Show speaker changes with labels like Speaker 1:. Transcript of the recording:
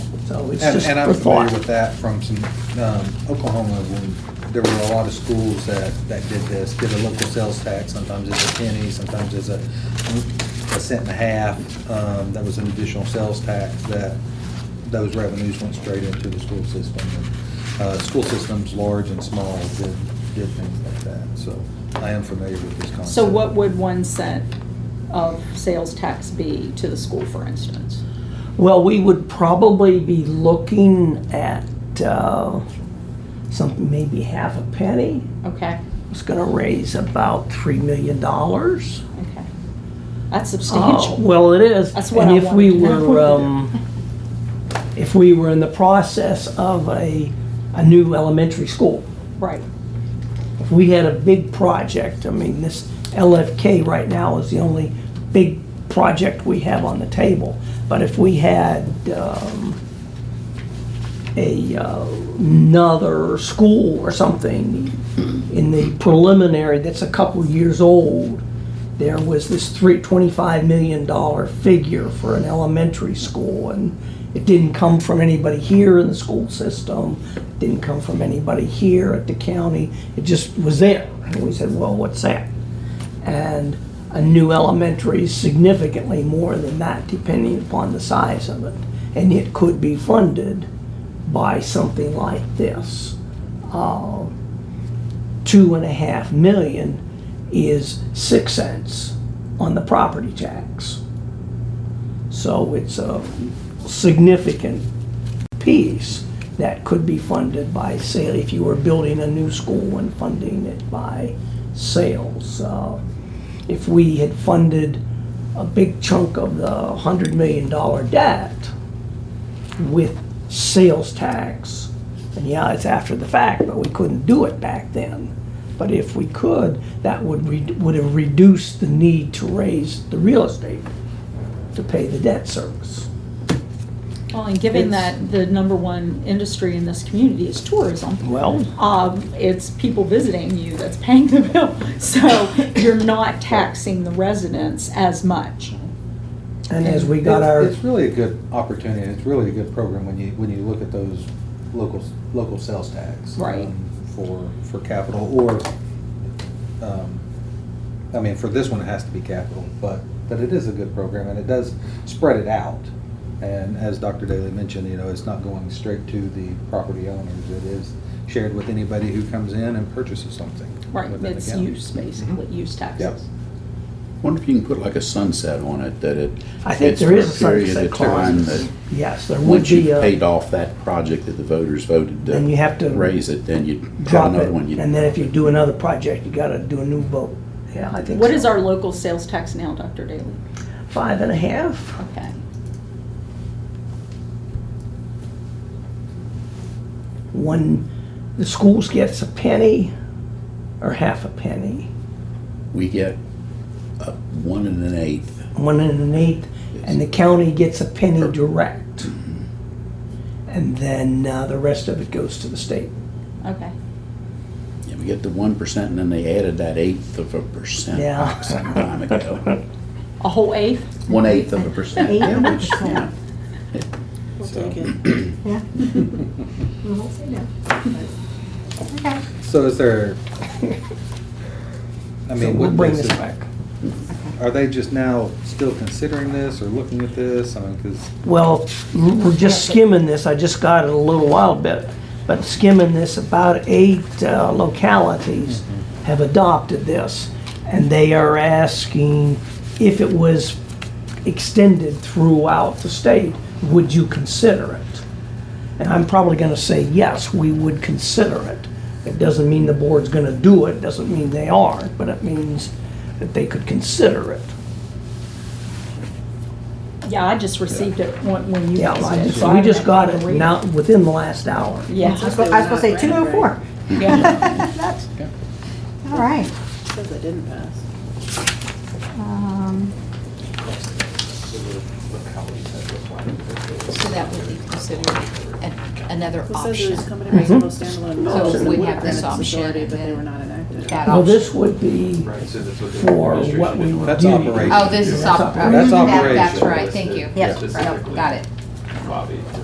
Speaker 1: So it's
Speaker 2: And,
Speaker 1: just
Speaker 2: and
Speaker 1: for
Speaker 2: I'm familiar
Speaker 1: thought.
Speaker 2: with that from some, um, Oklahoma, when there were a lot of schools that, that did this, did a local sales tax, sometimes it's a penny, sometimes it's a, a cent and a half. Um, that was an additional sales tax that, those revenues went straight into the school system. And, Uh, school systems, large and small, did, did things like that, so I am familiar with this concept.
Speaker 3: So what would one cent of sales tax be to the school, for instance?
Speaker 1: Well, we would probably be looking at uh, something, maybe half a penny.
Speaker 3: Okay,
Speaker 1: It's going to raise about $3 million.
Speaker 3: okay. That's
Speaker 1: Oh,
Speaker 3: substantial.
Speaker 1: Well, it is.
Speaker 3: That's what
Speaker 1: And
Speaker 3: I
Speaker 1: if we
Speaker 3: wanted to know.
Speaker 1: were, um, if we were in the process of a, a new elementary school,
Speaker 3: Right,
Speaker 1: if we had a big project, I mean, this LFK right now is the only big project we have on the table. But if we had, um, a, uh, another school or something in the preliminary that's a couple years old, there was this three, twenty-five million dollar figure for an elementary school, and it didn't come from anybody here in the school system, didn't come from anybody here at the county, it just was there. And we said, well, what's that? And a new elementary is significantly more than that, depending upon the size of it. And it could be funded by something like this. Uh, Two and a half million is six cents on the property tax. So it's a significant piece that could be funded by sale, if you were building a new school and funding it by sales. Uh, If we had funded a big chunk of the hundred million dollar debt with sales tax, and yeah, it's after the fact, but we couldn't do it back then. But if we could, that would, re- would have reduced the need to raise the real estate to pay the debt service.
Speaker 3: well, and given
Speaker 1: It's-
Speaker 3: that the number one industry in this community is tourism.
Speaker 1: Well,
Speaker 3: um, it's people visiting you that's paying the bill. So you're not taxing the residents as much.
Speaker 1: and as we got
Speaker 2: It's-
Speaker 1: our.
Speaker 2: It's really a good opportunity, it's really a good program when you, when you look at those local, local sales tax.
Speaker 3: Right.
Speaker 2: um, For, for capital, or, um, I mean, for this one, it has to be capital, but, but it is a good program, and it does spread it out. And as Dr. Daly mentioned, you know, it's not going straight to the property owners, it is shared with anybody who comes in and purchases something.
Speaker 3: Right,
Speaker 2: within the
Speaker 3: it's
Speaker 2: county.
Speaker 3: use, basically,
Speaker 1: Mm-hmm.
Speaker 3: use taxes.
Speaker 4: Wonder if you can put like a sunset on it, that it.
Speaker 1: I think
Speaker 4: it's
Speaker 1: there
Speaker 4: for
Speaker 1: is a
Speaker 4: period of
Speaker 1: sunset
Speaker 4: time
Speaker 1: clause.
Speaker 4: that
Speaker 1: Yes, there would
Speaker 4: Once you've
Speaker 1: be
Speaker 4: paid
Speaker 1: a,
Speaker 4: off that project that the voters voted
Speaker 1: Then you have to
Speaker 4: to raise it, then you have
Speaker 1: drop it,
Speaker 4: another one. you-
Speaker 1: and then if you do another project, you gotta do a new vote. Yeah, I think
Speaker 3: What is
Speaker 1: so.
Speaker 3: our local sales tax now, Dr. Daly?
Speaker 1: Five and a half?
Speaker 3: Okay,
Speaker 1: One, the schools gets a penny or half a penny,
Speaker 4: We get a one and an eighth.
Speaker 1: one and an eighth, and the county gets a penny direct.
Speaker 4: Mm-hmm.
Speaker 1: And then, uh, the rest of it goes to the state.
Speaker 3: okay.
Speaker 4: Yeah, we get the one percent and then they added that eighth of a percent
Speaker 1: Yeah.
Speaker 4: back some time ago.
Speaker 3: A whole eighth?
Speaker 4: One eighth of a percent.
Speaker 5: Eighth
Speaker 4: yeah,
Speaker 5: of a
Speaker 4: which,
Speaker 5: percent.
Speaker 4: yeah.
Speaker 5: We'll
Speaker 2: So-
Speaker 5: take it.
Speaker 3: Yeah.
Speaker 5: We won't say no. Okay.
Speaker 2: So is there, I
Speaker 1: So
Speaker 2: mean,
Speaker 1: we'll
Speaker 2: what
Speaker 1: bring
Speaker 2: makes
Speaker 1: this
Speaker 2: it-
Speaker 1: back.
Speaker 2: Are they just now still considering this or looking at this? I mean, because,
Speaker 1: Well, we're just skimming this, I just got it a little while bit, but skimming this, about eight uh, localities have adopted this, and they are asking if it was extended throughout the state, would you consider it? And I'm probably gonna say, yes, we would consider it. It doesn't mean the board's gonna do it, doesn't mean they are, but it means that they could consider it.
Speaker 3: Yeah, I just received it when when you
Speaker 1: Yeah,
Speaker 3: guys
Speaker 1: I
Speaker 3: did.
Speaker 1: just-
Speaker 3: so I
Speaker 1: we
Speaker 3: haven't
Speaker 1: just
Speaker 3: had
Speaker 1: got
Speaker 3: time to
Speaker 1: it
Speaker 3: read
Speaker 1: now, within the last hour.
Speaker 3: Yeah,
Speaker 5: I was gonna I was gonna say two oh four.
Speaker 3: yeah.
Speaker 5: That's, all right.
Speaker 6: Says it didn't pass.
Speaker 5: Um,
Speaker 7: So that would be considered a- another
Speaker 6: It says it
Speaker 7: option.
Speaker 6: was company reasonable standalone.
Speaker 7: So
Speaker 6: option.
Speaker 7: we
Speaker 6: Would
Speaker 7: have this
Speaker 6: granted
Speaker 7: option
Speaker 6: facility, But they
Speaker 7: and
Speaker 6: were not enacted.
Speaker 7: That
Speaker 1: Well,
Speaker 7: option.
Speaker 1: Oh, this would be for what we would
Speaker 2: That's
Speaker 1: do.
Speaker 2: operation.
Speaker 7: Oh, this is, op-
Speaker 1: That's
Speaker 7: I
Speaker 2: That's
Speaker 7: remember that, that's
Speaker 2: operation.
Speaker 7: right, thank you.
Speaker 5: Yeah.
Speaker 7: Yep, Got it.